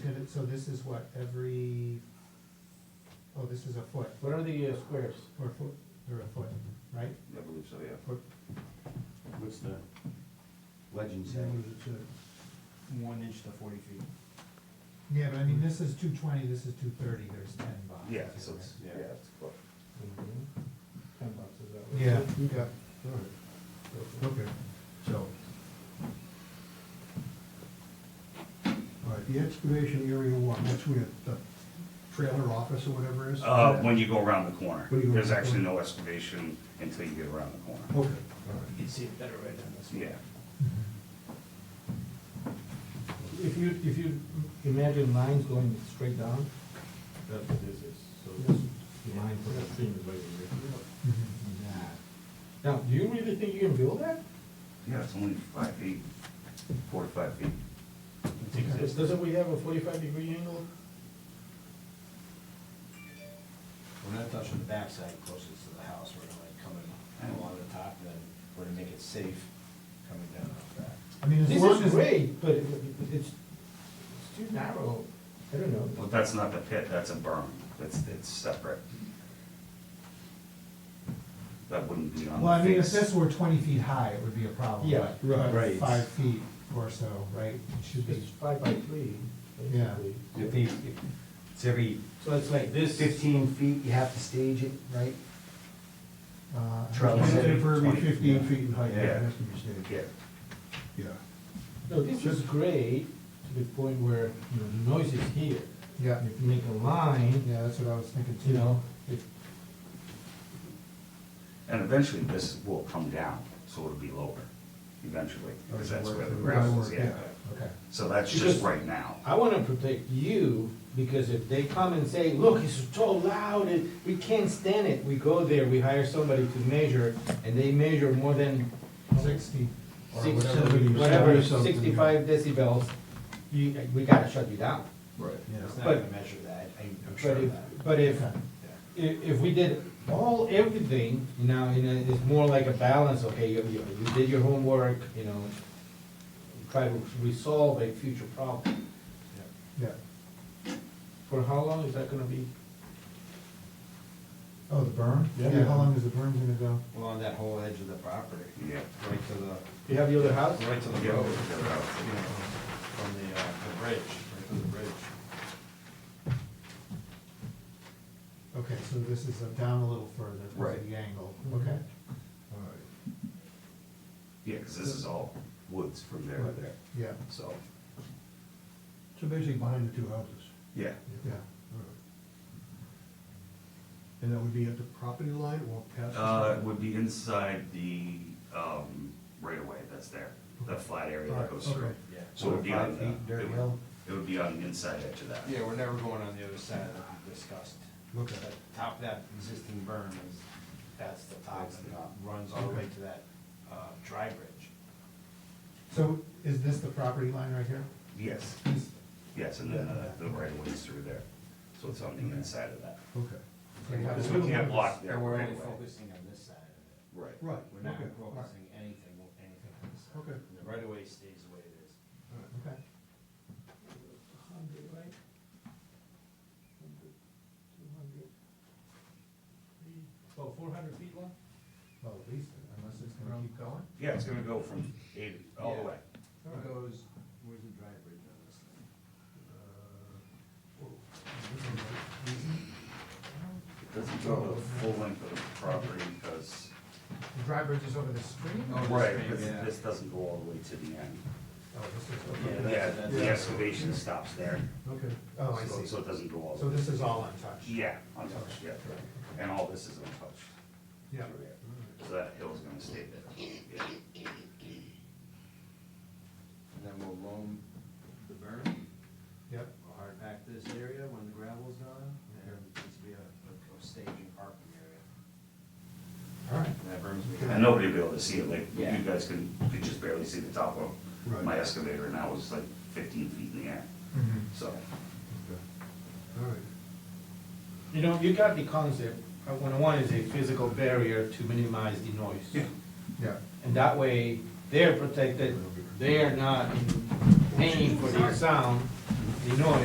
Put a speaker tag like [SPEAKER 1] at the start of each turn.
[SPEAKER 1] Did it- So this is what, every, oh, this is a foot,
[SPEAKER 2] What are the uh, squares?
[SPEAKER 1] or a foot, or a foot, right?
[SPEAKER 3] I believe so, yeah.
[SPEAKER 1] Foot,
[SPEAKER 3] What's the legend say?
[SPEAKER 4] one inch to forty feet.
[SPEAKER 1] Yeah, but I mean, this is two twenty, this is two thirty, there's ten boxes.
[SPEAKER 3] Yeah,
[SPEAKER 1] here,
[SPEAKER 3] so it's,
[SPEAKER 1] right?
[SPEAKER 3] yeah, it's close.
[SPEAKER 2] Mm-hmm.
[SPEAKER 4] Ten bucks is that
[SPEAKER 1] Yeah, yeah,
[SPEAKER 2] Okay.
[SPEAKER 5] Okay, so. All right, the excavation area one, that's where the trailer office or whatever is?
[SPEAKER 6] Uh, when you go around the corner.
[SPEAKER 5] When you go
[SPEAKER 6] There's
[SPEAKER 5] around the
[SPEAKER 6] actually no excavation until you get around the corner.
[SPEAKER 5] Okay,
[SPEAKER 1] Oh.
[SPEAKER 5] all right.
[SPEAKER 4] You can see it better right on this one.
[SPEAKER 6] Yeah.
[SPEAKER 2] If you, if you imagine lines going straight down, that's what this is, so this line for the stream is right here.
[SPEAKER 1] mhm.
[SPEAKER 2] Now, do you really think you can build that?
[SPEAKER 6] Yeah, it's only five feet,
[SPEAKER 3] Four to five feet.
[SPEAKER 2] Does- Doesn't we have a forty-five degree angle?
[SPEAKER 4] We're not touching the backside closest to the house, we're gonna like come in along the top, and then we're gonna make it safe coming down off that.
[SPEAKER 1] I mean, as
[SPEAKER 2] This
[SPEAKER 1] long
[SPEAKER 2] is
[SPEAKER 1] as,
[SPEAKER 2] great, but it- it's, it's too narrow, I don't know.
[SPEAKER 6] but that's not the pit, that's a berm. That's, it's separate. That wouldn't be on
[SPEAKER 1] well, I mean,
[SPEAKER 6] the
[SPEAKER 1] if
[SPEAKER 6] face.
[SPEAKER 1] this were twenty feet high, it would be a problem.
[SPEAKER 2] Yeah,
[SPEAKER 1] but- but
[SPEAKER 3] right.
[SPEAKER 1] Five feet or so, right, it should
[SPEAKER 2] It's
[SPEAKER 1] be,
[SPEAKER 2] five by three,
[SPEAKER 1] Yeah.
[SPEAKER 2] basically.
[SPEAKER 3] If they, if- it's every
[SPEAKER 4] So it's like this.
[SPEAKER 3] fifteen feet, you have to stage it, right?
[SPEAKER 1] uh.
[SPEAKER 3] Trellis.
[SPEAKER 1] I think-
[SPEAKER 5] For every
[SPEAKER 6] 20,
[SPEAKER 5] fifteen feet in height,
[SPEAKER 6] Yeah.
[SPEAKER 5] that has to be staged,
[SPEAKER 6] Yeah,
[SPEAKER 5] yeah.
[SPEAKER 2] No, this is great to the point where, you know, the noise is here.
[SPEAKER 1] Yeah,
[SPEAKER 2] If you make a line,
[SPEAKER 1] yeah, that's what I was thinking too.
[SPEAKER 2] you know, it,
[SPEAKER 6] and eventually this will come down, so it'll be lower, eventually, because that's where the
[SPEAKER 5] Right,
[SPEAKER 6] gravel is,
[SPEAKER 5] right,
[SPEAKER 6] yeah.
[SPEAKER 1] Okay,
[SPEAKER 6] So that's just
[SPEAKER 2] Because-
[SPEAKER 6] right now.
[SPEAKER 2] I wanna protect you, because if they come and say, look, it's so loud, and we can't stand it, we go there, we hire somebody to measure, and they measure more than
[SPEAKER 1] sixty, or
[SPEAKER 2] six,
[SPEAKER 1] whatever. you-
[SPEAKER 2] whatever,
[SPEAKER 5] something, yeah.
[SPEAKER 2] sixty-five decibels, you, we gotta shut you down.
[SPEAKER 4] Right.
[SPEAKER 5] Yeah.
[SPEAKER 4] It's not
[SPEAKER 2] But-
[SPEAKER 4] gonna measure that, I- I'm sure
[SPEAKER 2] But
[SPEAKER 4] of
[SPEAKER 2] if,
[SPEAKER 4] that.
[SPEAKER 2] but if,
[SPEAKER 4] Yeah.
[SPEAKER 2] if, if we did all, everything, you know, you know, it's more like a balance, okay, you, you, you did your homework, you know, try to resolve a future problem.
[SPEAKER 1] Yeah,
[SPEAKER 2] For how long is that gonna be?
[SPEAKER 1] oh, the berm?
[SPEAKER 2] Yeah.
[SPEAKER 1] Yeah, how long is the berm gonna go?
[SPEAKER 4] Along that whole edge of the property,
[SPEAKER 6] Yeah.
[SPEAKER 4] right to the,
[SPEAKER 2] You have the other house?
[SPEAKER 4] right to the
[SPEAKER 6] Yeah.
[SPEAKER 4] road, you know, from the, uh, the bridge, right to the bridge.
[SPEAKER 1] Okay, so this is uh, down a little further, because
[SPEAKER 6] Right. Mm-hmm.
[SPEAKER 1] of the angle, okay.
[SPEAKER 5] All right,
[SPEAKER 6] Yeah, because this is all woods from there to there,
[SPEAKER 1] Yeah,
[SPEAKER 6] so,
[SPEAKER 5] so basically behind the two houses.
[SPEAKER 6] yeah.
[SPEAKER 1] yeah.
[SPEAKER 5] All right. And that would be at the property line or past? the
[SPEAKER 6] Uh, it
[SPEAKER 5] property?
[SPEAKER 6] would be inside the, um, right away that's there, that flat area that goes through.
[SPEAKER 5] Okay.
[SPEAKER 4] Yeah.
[SPEAKER 6] So it would be on
[SPEAKER 3] Five feet,
[SPEAKER 6] the,
[SPEAKER 3] dirt
[SPEAKER 6] it would,
[SPEAKER 3] hill.
[SPEAKER 6] it would be on the inside edge of that.
[SPEAKER 4] Yeah, we're never going on the other side that we discussed.
[SPEAKER 5] Okay.
[SPEAKER 4] That Top of that existing berm is, that's the top
[SPEAKER 6] That's the
[SPEAKER 4] and
[SPEAKER 6] top.
[SPEAKER 4] runs all the way to that, uh, dry bridge.
[SPEAKER 1] So is this the property line right here?
[SPEAKER 6] Yes,
[SPEAKER 1] This-
[SPEAKER 6] yes, and then uh, the right of way is through there, so it's on the inside of that.
[SPEAKER 5] Okay,
[SPEAKER 1] like how-
[SPEAKER 6] Because we can't block there
[SPEAKER 4] And we're
[SPEAKER 6] right
[SPEAKER 4] only
[SPEAKER 6] away.
[SPEAKER 4] focusing on this side of
[SPEAKER 6] Right.
[SPEAKER 5] right,
[SPEAKER 4] it. We're
[SPEAKER 5] okay,
[SPEAKER 4] not
[SPEAKER 5] all right.
[SPEAKER 4] focusing anything, anything on this side.
[SPEAKER 5] Okay.
[SPEAKER 4] And The right of way stays the way it is.
[SPEAKER 1] Okay.
[SPEAKER 2] Hundred, right? Well, four hundred feet long?
[SPEAKER 1] Well, at least, unless it's gonna keep going.
[SPEAKER 6] Yeah, it's gonna go from eight, all the
[SPEAKER 4] Yeah.
[SPEAKER 6] way.
[SPEAKER 4] It goes, where's the dry bridge on this thing?
[SPEAKER 5] Uh,
[SPEAKER 6] It doesn't go the full length of the property because,
[SPEAKER 1] The dry bridge is over the stream?
[SPEAKER 4] Oh, this
[SPEAKER 6] right,
[SPEAKER 4] thing,
[SPEAKER 6] this,
[SPEAKER 4] yeah.
[SPEAKER 6] this doesn't go all the way to the end.
[SPEAKER 1] Oh, this is,
[SPEAKER 4] Yeah,
[SPEAKER 1] okay.
[SPEAKER 4] that's-
[SPEAKER 6] Yeah,
[SPEAKER 4] that's-
[SPEAKER 6] the excavation stops there,
[SPEAKER 5] okay.
[SPEAKER 1] oh, I
[SPEAKER 6] so
[SPEAKER 1] see.
[SPEAKER 6] so it doesn't go all the
[SPEAKER 1] So
[SPEAKER 6] way.
[SPEAKER 1] this is all untouched?
[SPEAKER 6] Yeah, untouched, yeah, and all this is untouched.
[SPEAKER 1] Yeah.
[SPEAKER 6] through there. So that hill's gonna stay there, yeah.
[SPEAKER 4] And then we'll loam the berm.
[SPEAKER 1] Yep,
[SPEAKER 4] We'll hard pack this area when the gravel's gone, and it's be a, a- a staging parking area.
[SPEAKER 1] all right.
[SPEAKER 4] And that berm's gonna be-
[SPEAKER 6] And nobody will be able to see it, like, you
[SPEAKER 4] Yeah.
[SPEAKER 6] guys can, could just barely see the top of
[SPEAKER 5] Right.
[SPEAKER 6] my excavator, and that was like fifteen feet in the air,
[SPEAKER 2] Mm-hmm.
[SPEAKER 6] so.
[SPEAKER 5] Okay. All right,
[SPEAKER 2] You know, you got the concept, uh, one one is a physical barrier to minimize the noise.
[SPEAKER 1] Yeah,
[SPEAKER 2] And that way, they're protected, they are not in paying for their sound, the noise.